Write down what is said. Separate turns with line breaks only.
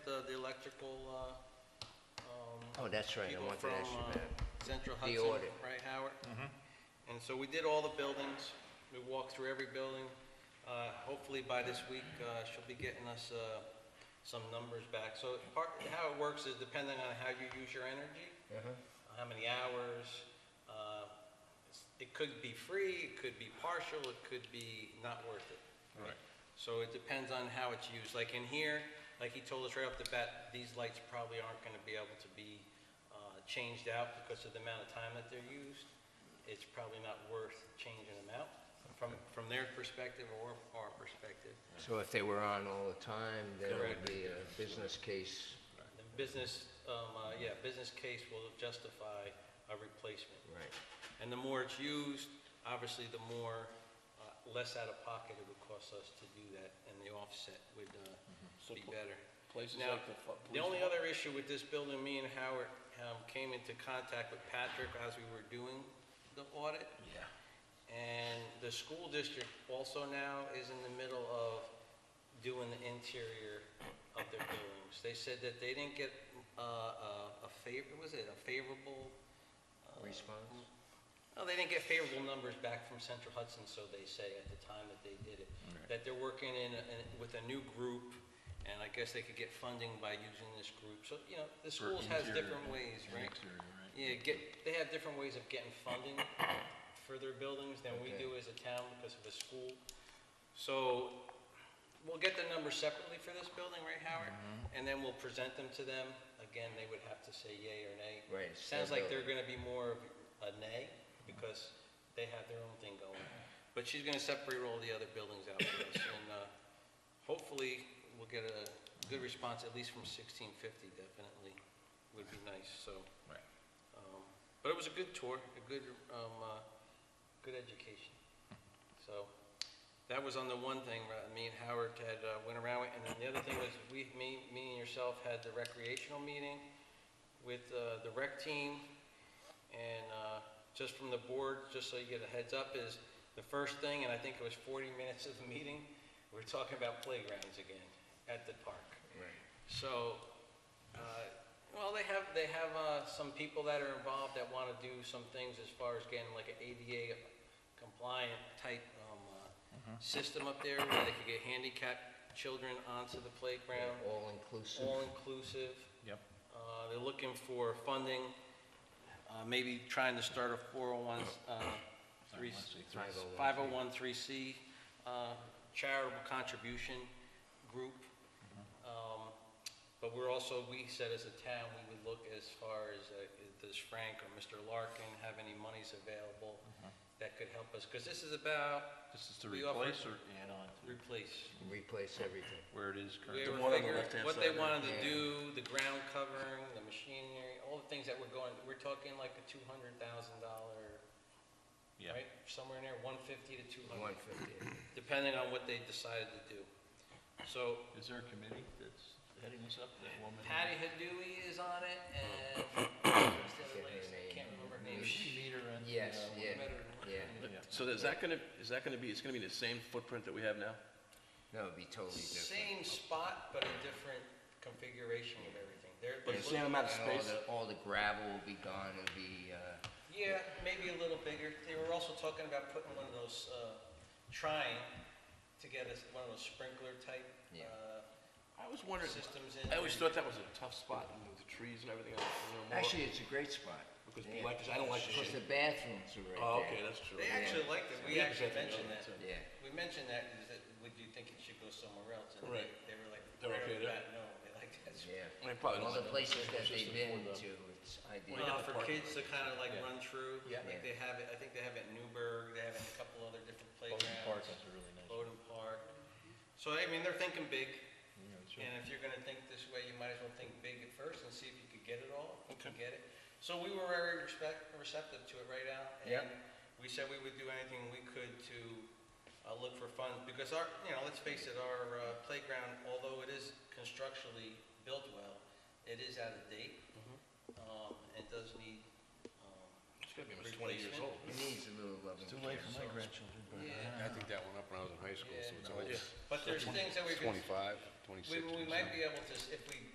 uh, the electrical, uh, um,
Oh, that's right, I
people
wanted
from
to ask you
uh,
that.
Central
The
Hudson,
audit.
right, Howard?
Mm-hmm.
And so we did all the buildings, we walked through every building. Uh, Hopefully by this week, uh, she'll be getting us uh, some numbers back. So part, how it works is depending on how you use your energy,
Uh-huh.
how many hours, uh, it's- it could be free, it could be partial, it could be not worth it.
Right.
So it depends on how it's used. Like in here, like he told us right off the bat, these lights probably aren't going to be able to be uh, changed out because of the amount of time that they're used. It's probably not worth changing them out from, from their perspective or our perspective.
So if they were on all the time, there would
Correct.
be a business case.
The business, um, uh, yeah, business case will justify a replacement.
Right.
And the more it's used, obviously, the more, uh, less out of pocket it would cost us to do that, and the offset would uh,
Mm-hmm. So
be
pl-
better.
places
Now,
like the fu-
the
police
only other issue with this building, me and Howard um, came into contact with Patrick as we were doing the audit.
Yeah.
And the school district also now is in the middle of doing the interior of their buildings. They said that they didn't get uh, a a favor, was it a favorable? uh,
Response?
No, they didn't get favorable numbers back from Central Hudson, so they say, at the time that they did it. That they're working in, in- with a new group, and I guess they could get funding by using this group. So, you know, the schools has
interior
different ways,
and
right?
exterior, right.
Yeah, get, they have different ways of getting funding for their buildings than we do as a town because of a school. So we'll get the numbers separately for this building, right, Howard?
Mm-hmm.
And then we'll present them to them. Again, they would have to say yay or nay.
Right, it's their
Sounds like they're gonna be more of a nay because they have their own thing going. But she's gonna separate all the other buildings out for us and, uh, hopefully we'll get a good response, at least from sixteen fifty definitely, would be nice, so.
Right.
Um, But it was a good tour, a good, um, uh, good education. So that was on the one thing, uh, me and Howard had, uh, went around, with, and then the other thing was, we, me, me and yourself had the recreational meeting with, uh, the rec team. And, uh, just from the board, just so you get a heads up, is the first thing, and I think it was forty minutes of the meeting, we we're talking about playgrounds again at the park. So, uh, well, they have, they have uh, some people that are involved that want to do some things as far as getting like an ADA compliant type um, uh, system up there where they could get handicapped children onto the playground,
All inclusive.
all inclusive.
Yep.
Uh, They're looking for funding, uh, maybe trying to start a 401, uh, three-
501c.
501c uh, charitable contribution group. Um, But we're also, we said as a town, we would look as far as, uh, does Frank or Mr. Larkin have any monies available that could help us? Because this is about
This is to
We offer-
replace or add on to
replace.
Replace everything.
where it is
We
currently?
were
one on the
figuring
left-hand
what they
side,
wanted to
yeah.
do, the ground covering, the machinery, all the things that were going, we're talking like a two hundred thousand dollar,
Yeah.
right? Somewhere in there, one fifty to two hundred,
One fifty.
depending on what they decided to do. So
Is there a committee that's heading this up, that woman?
Patty Hadouy is on it and what's the other
Get her
lady's name?
name.
can't remember her name.
Did she meet her in? the,
Yes,
uh,
yeah, yeah.
Yeah.
So is that gonna, is that gonna be, it's gonna be the same footprint that we have now?
No, it'd be totally different.
Same spot, but a different configuration of everything. They're,
But
they're
the same
looking-
amount of
And all
space?
the, all the gravel will be gone, it'll be, uh,
Yeah, maybe a little bigger. They were also talking about putting one of those, uh, trying to get us one of those sprinkler type,
Yeah.
uh,
I was wondering,
systems in.
I always thought that was a tough spot, you know, with the trees and everything else. you know, more-
actually, it's a great spot.
Because
Yeah.
like, 'cause I don't like the
Because the
shade.
bathrooms are right there.
Oh, okay, that's true.
They actually liked it. We
Yeah,
actually
exactly.
mentioned that.
Yeah,
Yeah.
We mentioned that, is that, would you think it should go somewhere else? And they,
Right.
they were like,
They're
right
okay
off the
there?
bat, no, they like that.
yeah.
I probably
All
don't
the
like it.
places that
It's just
they've
a
been
form of-
to, it's ideal.
Well,
the
for
parking
kids to kind of like run through,
Yeah.
like they have it, I think they have it in Newburgh, they have it in a couple other different
Bowden Park
playgrounds.
is a really nice.
Bowden Park. So, I mean, they're thinking big.
yeah, it's really-
And if you're gonna think this way, you might as well think big at first and see if you could get it all, if you can get it. So we were very respect, receptive to it right out.
Yeah.
And we said we would do anything we could to, uh, look for funds, because our, you know, let's face it, our uh, playground, although it is constructionally built well, it is out of date.
Mm-hmm.
Um, it does need, um,
It's gonna be almost twenty years
Replacement.
old.
It needs a little loving
It's too
care.
late for my grandchildren, but.
Yeah.
I think that went up when I was in high school, so it's
Yeah.
old.
but there's things that we could,
Twenty-five,
we,
twenty-six.
we might be able to, s- if we